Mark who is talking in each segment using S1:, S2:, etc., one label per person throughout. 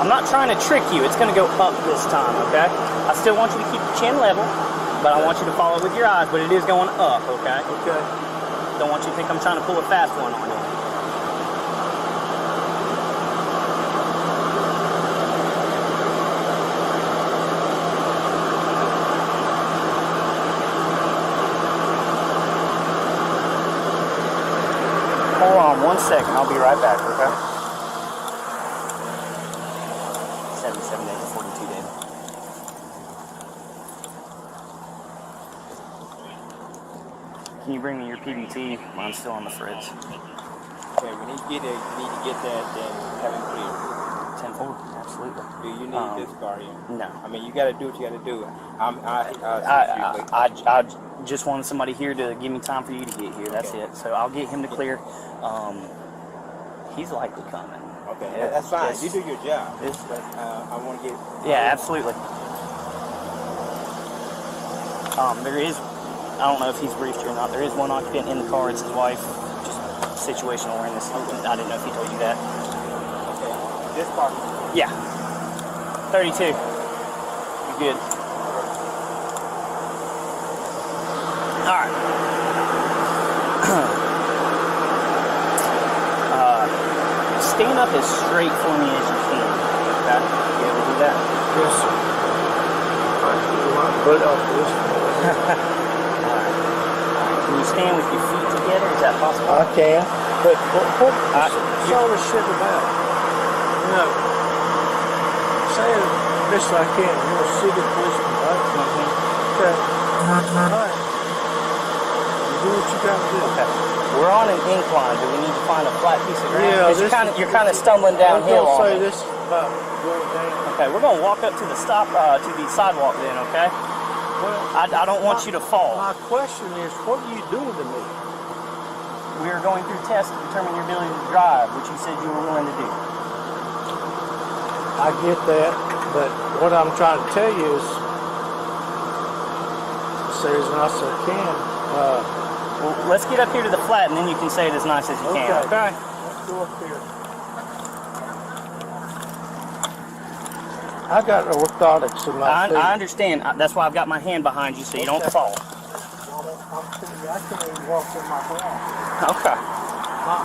S1: I'm not trying to trick you. It's going to go up this time, okay? I still want you to keep your chin level, but I want you to follow with your eyes, but it is going up, okay?
S2: Okay.
S1: Don't want you to think I'm trying to pull a fast one on you. Hold on one second. I'll be right back, okay? Seven, seven, eight, forty-two, David. Can you bring me your PBT? Mine's still on the fridge.
S2: Okay, when he get it, you need to get that and have him clear.
S1: Ten four, absolutely.
S2: Do you need
S1: Um,
S2: this car here?
S1: No.
S2: I mean, you got to do what you got to do. I'm, I, I,
S1: I, I, I, I just wanted somebody here to give me time for you to get here. That's
S2: Okay.
S1: it. So I'll get him to clear. Um, he's likely coming.
S2: okay,
S1: Yeah,
S2: that's fine.
S1: yes.
S2: You do your job.
S1: Yes.
S2: But uh, I want to get.
S1: Yeah, absolutely. Um, there is, I don't know if he's briefed you or not. There is one occupant in the car. It's his wife. Just situational awareness. I didn't know if he told you that.
S2: Okay, this part.
S1: Yeah. Thirty-two. You good? All right. uh, stand up as straight for me as you can. Okay. You able to do that?
S3: Yes, sir. I do my butt off this.
S1: Can you stand with your feet together? Is that possible?
S3: I can, but what, what
S1: Uh,
S3: is all this shit about? No. Saying this I can, you're a city policeman, right? Okay. All right. You do what you gotta do.
S1: Okay. We're on an incline. Do we need to find a flat piece of ground?
S3: Yeah,
S1: 'Cause you're
S3: this
S1: kind of
S3: is-
S1: you're kind of stumbling
S3: I'm
S1: downhill.
S3: gonna
S1: on
S3: say
S1: it.
S3: this is about going down.
S1: Okay, we're gonna walk up to the stop uh, to the sidewalk then. Okay.
S3: Well,
S1: I, I don't want you to fall.
S3: my question is, what are you doing to me?
S1: We are going through tests to determine your ability to drive, which you said you were willing to do.
S3: I get that, but what I'm trying to tell you is, say as nice as I can. Uh,
S1: Well, let's get up here to the flat, and then you can say it as nice as you can.
S3: Okay. Let's go up here. I got orthotics in my
S1: I,
S3: feet.
S1: I understand. I- That's why I've got my hand behind you so you don't
S3: Okay.
S1: fall.
S3: I'm telling you, I can't even walk in my ground.
S1: Okay.
S3: My,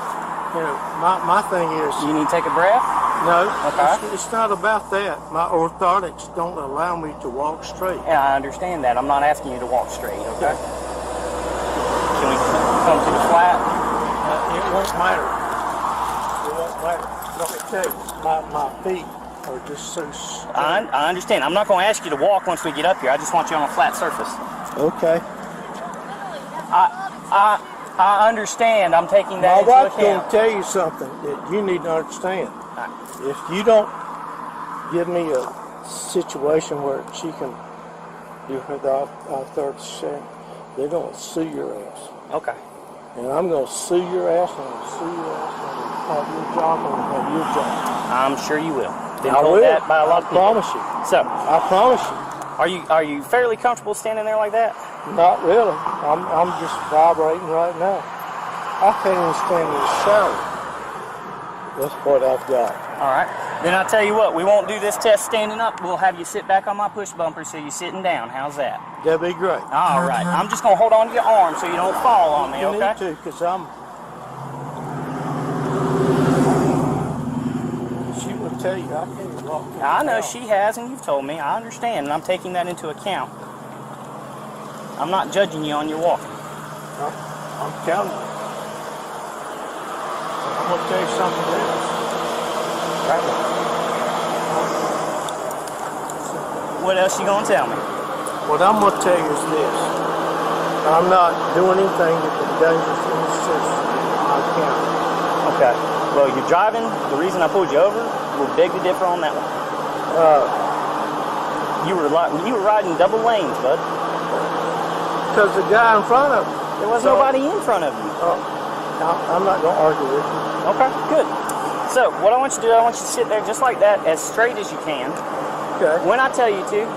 S3: you know, my, my thing is,
S1: You need to take a breath.
S3: no,
S1: Okay.
S3: it's, it's not about that. My orthotics don't allow me to walk straight.
S1: Yeah, I understand that. I'm not asking you to walk straight. Okay. Can we come to the flat?
S3: Uh, it won't matter. It won't matter. Let me tell you, my, my feet are just so. straight.
S1: I, I understand. I'm not going to ask you to walk once we get up here. I just want you on a flat surface.
S3: Okay.
S1: I I understand. I'm taking
S3: My
S1: that into
S3: wife's going to
S1: account.
S3: tell you something that you need to understand.
S1: Alright.
S3: If you don't give me a situation where she can do her the authority share, they're going to sue your ass.
S1: Okay.
S3: And I'm going to sue your ass, and I'm going to sue your ass, and I'm going to have your job, and I'm going to have your job.
S1: I'm sure you will. Been
S3: I
S1: told
S3: will.
S1: that by a
S3: I
S1: lot of people.
S3: promise you.
S1: So,
S3: I promise you.
S1: are you are you fairly comfortable standing there like that?
S3: Not really. I'm, I'm just vibrating right now. I can't even stand in the shower. That's what I've got.
S1: All right. Then I'll tell you what. We won't do this test standing up. We'll have you sit back on my push bumper so you're sitting down. How's that?
S3: That'd be great.
S1: All right. I'm just gonna hold on to your arm so you don't fall on me.
S3: You
S1: Okay.
S3: need to, because I'm. She will tell you, I can't walk. in
S1: I know
S3: town.
S1: she has, and you've told me. I understand, and I'm taking that into account. I'm not judging you on your walk.
S3: I'm I'm telling you. I'm going to tell you something else. Right now.
S1: What else you gonna tell me?
S3: What I'm going to tell you is this. I'm not doing anything that endangers any citizen in my county.
S1: Okay. Well, you're driving. The reason I pulled you over, we'll beg to differ on that one. Uh,
S3: Because
S1: You were li- you were riding double lanes, bud.
S3: the guy in front of me.
S1: There was
S3: So-
S1: nobody in front of you.
S3: Oh, I- I'm not going to argue with you.
S1: Okay. Good. So what I want you to do, I want you to sit there just like that, as straight as you can.
S3: Okay.
S1: When I tell you to,